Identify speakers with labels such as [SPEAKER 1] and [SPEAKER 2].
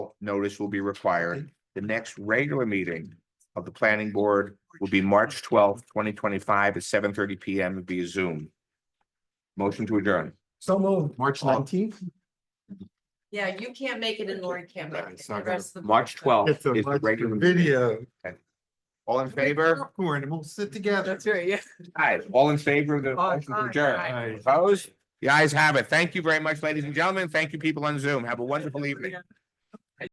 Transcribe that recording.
[SPEAKER 1] twelfth, notice will be required. The next regular meeting of the planning board will be March twelfth, twenty twenty-five at seven thirty P M via Zoom. Motion to adjourn.
[SPEAKER 2] So moved.
[SPEAKER 3] March
[SPEAKER 2] nineteenth?
[SPEAKER 4] Yeah, you can't make it and Lauren can't make it.
[SPEAKER 1] It's not
[SPEAKER 4] The
[SPEAKER 1] gonna-
[SPEAKER 4] rest of the-
[SPEAKER 1] March twelfth is
[SPEAKER 3] It's a
[SPEAKER 1] the
[SPEAKER 3] much
[SPEAKER 1] regular. meeting.
[SPEAKER 3] video.
[SPEAKER 1] All in favor?
[SPEAKER 3] Popcorn and we'll sit together.
[SPEAKER 4] That's right, yeah.
[SPEAKER 1] Aye. All in favor of the
[SPEAKER 4] Aye.
[SPEAKER 1] motion to adjourn?
[SPEAKER 3] Aye.
[SPEAKER 1] Opposed? The ayes have it. Thank you very much, ladies and gentlemen. Thank you, people on Zoom. Have a wonderful evening.